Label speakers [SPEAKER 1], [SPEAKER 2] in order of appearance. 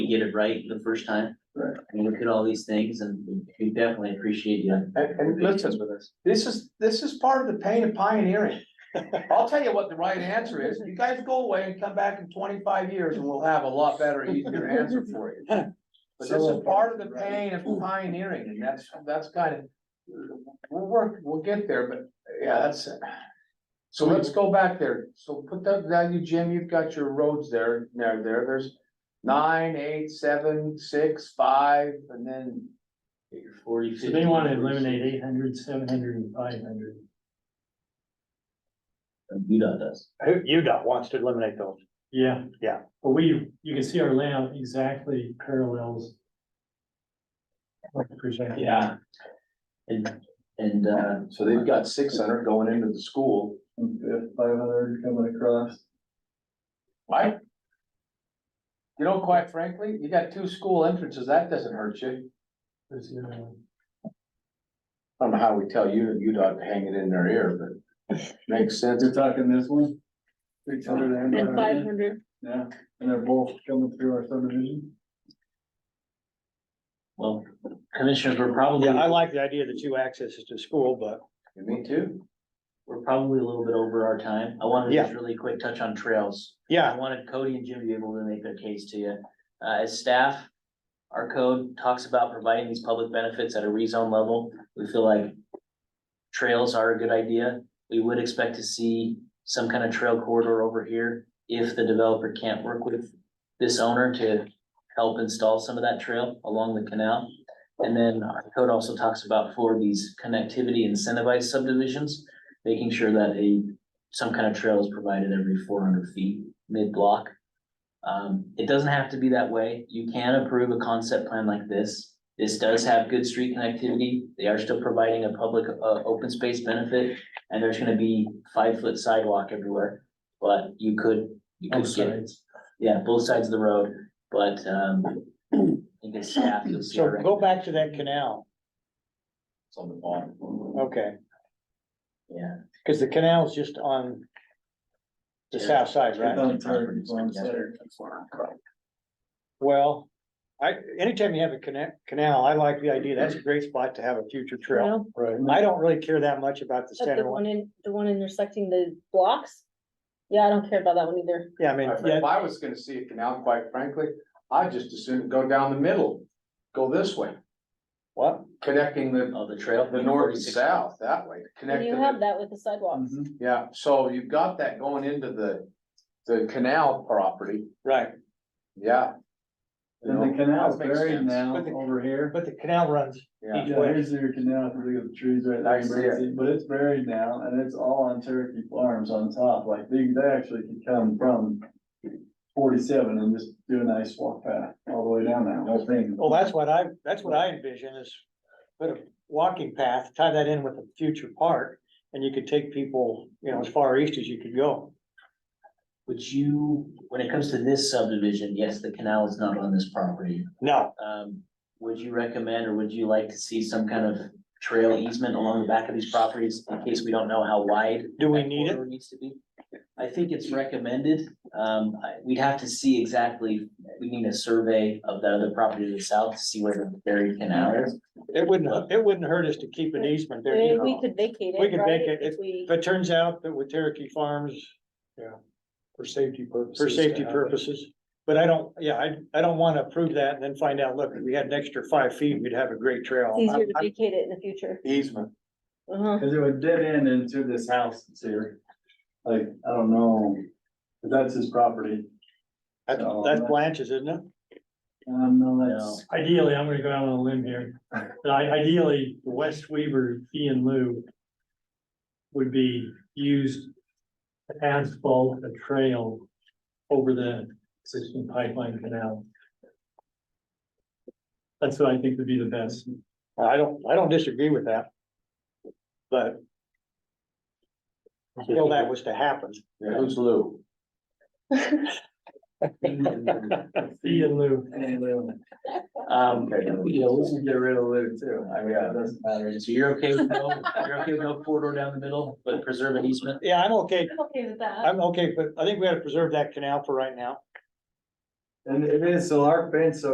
[SPEAKER 1] get it right the first time.
[SPEAKER 2] Right.
[SPEAKER 1] And look at all these things and we definitely appreciate you.
[SPEAKER 2] And, and listen,
[SPEAKER 3] with us.
[SPEAKER 2] this is, this is part of the pain of pioneering. I'll tell you what the right answer is. You guys go away and come back in twenty-five years and we'll have a lot better, easier answer for you. But this is part of the pain of pioneering and that's, that's kind of, we'll work, we'll get there, but yeah, that's. So let's go back there. So put that, that you, Jim, you've got your roads there, there, there, there's nine, eight, seven, six, five, and then
[SPEAKER 1] Get your Forty,
[SPEAKER 4] So
[SPEAKER 1] fifty.
[SPEAKER 4] they wanna eliminate eight hundred, seven hundred and five hundred.
[SPEAKER 1] UDOT does.
[SPEAKER 3] UDOT wants to eliminate those.
[SPEAKER 4] Yeah.
[SPEAKER 3] Yeah.
[SPEAKER 4] But we, you can see our layout exactly parallels. what we presented.
[SPEAKER 1] Yeah. And, and, uh,
[SPEAKER 2] So they've got six hundred going into the school. Mm-hmm.
[SPEAKER 3] Five hundred coming across.
[SPEAKER 2] Why? You know, quite frankly, you got two school entrances, that doesn't hurt you.
[SPEAKER 4] There's the other one.
[SPEAKER 2] I don't know how we tell you, you don't hang it in their ear, but makes sense.
[SPEAKER 3] You're talking this one? Six hundred
[SPEAKER 5] And
[SPEAKER 3] and.
[SPEAKER 5] five hundred,
[SPEAKER 3] Yeah, and they're both coming through our subdivision.
[SPEAKER 1] well, commissioners, we're probably,
[SPEAKER 6] Yeah, I like the idea of the two accesses to school, but
[SPEAKER 2] Me too.
[SPEAKER 1] we're probably a little bit over our time. I wanted to
[SPEAKER 6] Yeah.
[SPEAKER 1] just really quick touch on trails. I
[SPEAKER 6] yeah,
[SPEAKER 1] wanted Cody and Jim to be able to make their case to you. Uh, as staff, our code talks about providing these public benefits at a rezone level. We feel like trails are a good idea. We would expect to see some kind of trail corridor over here if the developer can't work with this owner to help install some of that trail along the canal. And then our code also talks about for these connectivity incentivized subdivisions, making sure that a, some kind of trail is provided every four hundred feet mid-block. Um, it doesn't have to be that way. You can approve a concept plan like this. This does have good street connectivity. They are still providing a public, uh, open space benefit. And there's gonna be five-foot sidewalk everywhere, but you could, you could
[SPEAKER 4] Both
[SPEAKER 1] get, yeah, both sides of the road, but, um, I think as staff, you'll see.
[SPEAKER 6] so
[SPEAKER 1] our
[SPEAKER 6] go back to that canal,
[SPEAKER 2] It's on the bottom.
[SPEAKER 6] okay,
[SPEAKER 1] Yeah.
[SPEAKER 6] cause the canal's just on. The south side, right?
[SPEAKER 3] On target, on side.
[SPEAKER 6] Well, I, anytime you have a connect, canal, I like the idea, that's a great spot to have a future trail.
[SPEAKER 5] no,
[SPEAKER 3] Right.
[SPEAKER 6] I don't really care that much about the
[SPEAKER 5] that's the
[SPEAKER 6] center one,
[SPEAKER 5] one in, the one intersecting the blocks. Yeah, I don't care about that one either.
[SPEAKER 6] yeah, I mean, yeah,
[SPEAKER 2] If I was gonna see a canal, quite frankly, I'd just as soon go down the middle, go this way,
[SPEAKER 6] what,
[SPEAKER 2] connecting the,
[SPEAKER 1] Oh, the trail.
[SPEAKER 2] the north and
[SPEAKER 1] 46.
[SPEAKER 2] south that way.
[SPEAKER 5] And you
[SPEAKER 2] connecting
[SPEAKER 5] have
[SPEAKER 2] it.
[SPEAKER 5] that with the sidewalks.
[SPEAKER 6] Mm-hmm.
[SPEAKER 3] Mhm.
[SPEAKER 2] Yeah, so you've got that going into the, the canal property,
[SPEAKER 6] right,
[SPEAKER 2] yeah. You
[SPEAKER 3] And
[SPEAKER 2] know,
[SPEAKER 3] the canal's
[SPEAKER 2] that makes
[SPEAKER 3] buried
[SPEAKER 2] sense.
[SPEAKER 3] now
[SPEAKER 6] But the-
[SPEAKER 3] over here.
[SPEAKER 6] but the canal runs,
[SPEAKER 2] Yeah.
[SPEAKER 3] Yeah, here's your canal, if you look at the trees right
[SPEAKER 2] I see
[SPEAKER 3] there,
[SPEAKER 2] it.
[SPEAKER 3] but it's buried now and it's all on Cherokee Farms on top, like they, they actually could come from. Forty-seven and just do a nice walk path all the way down that whole thing.
[SPEAKER 6] well, that's what I, that's what I envision is. Put a walking path, tie that in with a future park, and you could take people, you know, as far east as you could go.
[SPEAKER 1] Would you, when it comes to this subdivision, yes, the canal is not on this property.
[SPEAKER 6] No,
[SPEAKER 1] Um, would you recommend or would you like to see some kind of trail easement along the back of these properties in case we don't know how wide?
[SPEAKER 6] do we
[SPEAKER 1] that
[SPEAKER 6] need it?
[SPEAKER 1] corridor Needs to be. I think it's recommended. Um, I, we'd have to see exactly, we need a survey of the other property to the south to see where the buried canal is.
[SPEAKER 6] It wouldn't, it wouldn't hurt us to keep an easement there,
[SPEAKER 5] Maybe
[SPEAKER 6] you
[SPEAKER 5] eh, we
[SPEAKER 6] know.
[SPEAKER 5] could vacate it,
[SPEAKER 6] We could
[SPEAKER 5] right,
[SPEAKER 6] vacate
[SPEAKER 5] if
[SPEAKER 6] it.
[SPEAKER 5] we,
[SPEAKER 6] If it turns out that with Cherokee Farms,
[SPEAKER 3] For safety purposes.
[SPEAKER 6] for safety purposes, but I don't, yeah, I, I don't wanna approve that and then find out, look, if we had an extra five feet, we'd have a great trail.
[SPEAKER 5] it's easier to
[SPEAKER 6] I- I-
[SPEAKER 5] vacate it in the future.
[SPEAKER 2] Easement.
[SPEAKER 5] Uh-huh.
[SPEAKER 3] Cause it would dead end into this house that's here. Like, I don't know, but that's his property.
[SPEAKER 6] That's, that's Blanche's, isn't it?
[SPEAKER 3] Um, no, that's,
[SPEAKER 4] Ideally, I'm gonna go out on a limb here, but I, ideally, the West Weaver fee and lieu would be used to asphalt a trail over the existing pipeline canal. That's what I think would be the best.
[SPEAKER 6] Uh, I don't, I don't disagree with that. But until that was to happen,
[SPEAKER 2] Yeah, who's Lou?
[SPEAKER 4] Fee and lieu.
[SPEAKER 3] and, uh,
[SPEAKER 1] Um,
[SPEAKER 2] Okay.
[SPEAKER 1] you know,
[SPEAKER 3] we can get rid of Lou too. I mean,
[SPEAKER 2] Yeah.
[SPEAKER 3] it doesn't matter.
[SPEAKER 1] so you're okay with no, you're okay with no corridor down the middle, but preserve an easement?
[SPEAKER 6] yeah, I'm okay,
[SPEAKER 5] I'm okay with that.
[SPEAKER 6] I'm okay, but I think we gotta preserve that canal for right now.
[SPEAKER 3] And it is, so our fence